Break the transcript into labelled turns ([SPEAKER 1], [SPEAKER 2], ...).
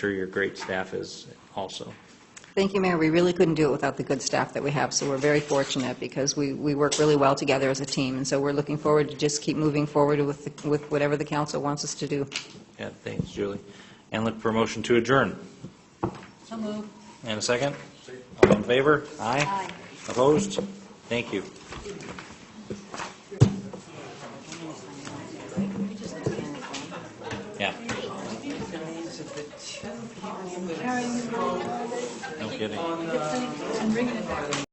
[SPEAKER 1] sure your great staff is also.
[SPEAKER 2] Thank you, Mayor. We really couldn't do it without the good staff that we have, so we're very fortunate because we, we work really well together as a team. And so we're looking forward to just keep moving forward with, the- with whatever the council wants us to do.
[SPEAKER 1] Yeah, thanks, Julie. And look for a motion to adjourn.
[SPEAKER 2] So moved.
[SPEAKER 1] And a second? All in favor? Aye. Opposed? Thank you. Yeah. No kidding.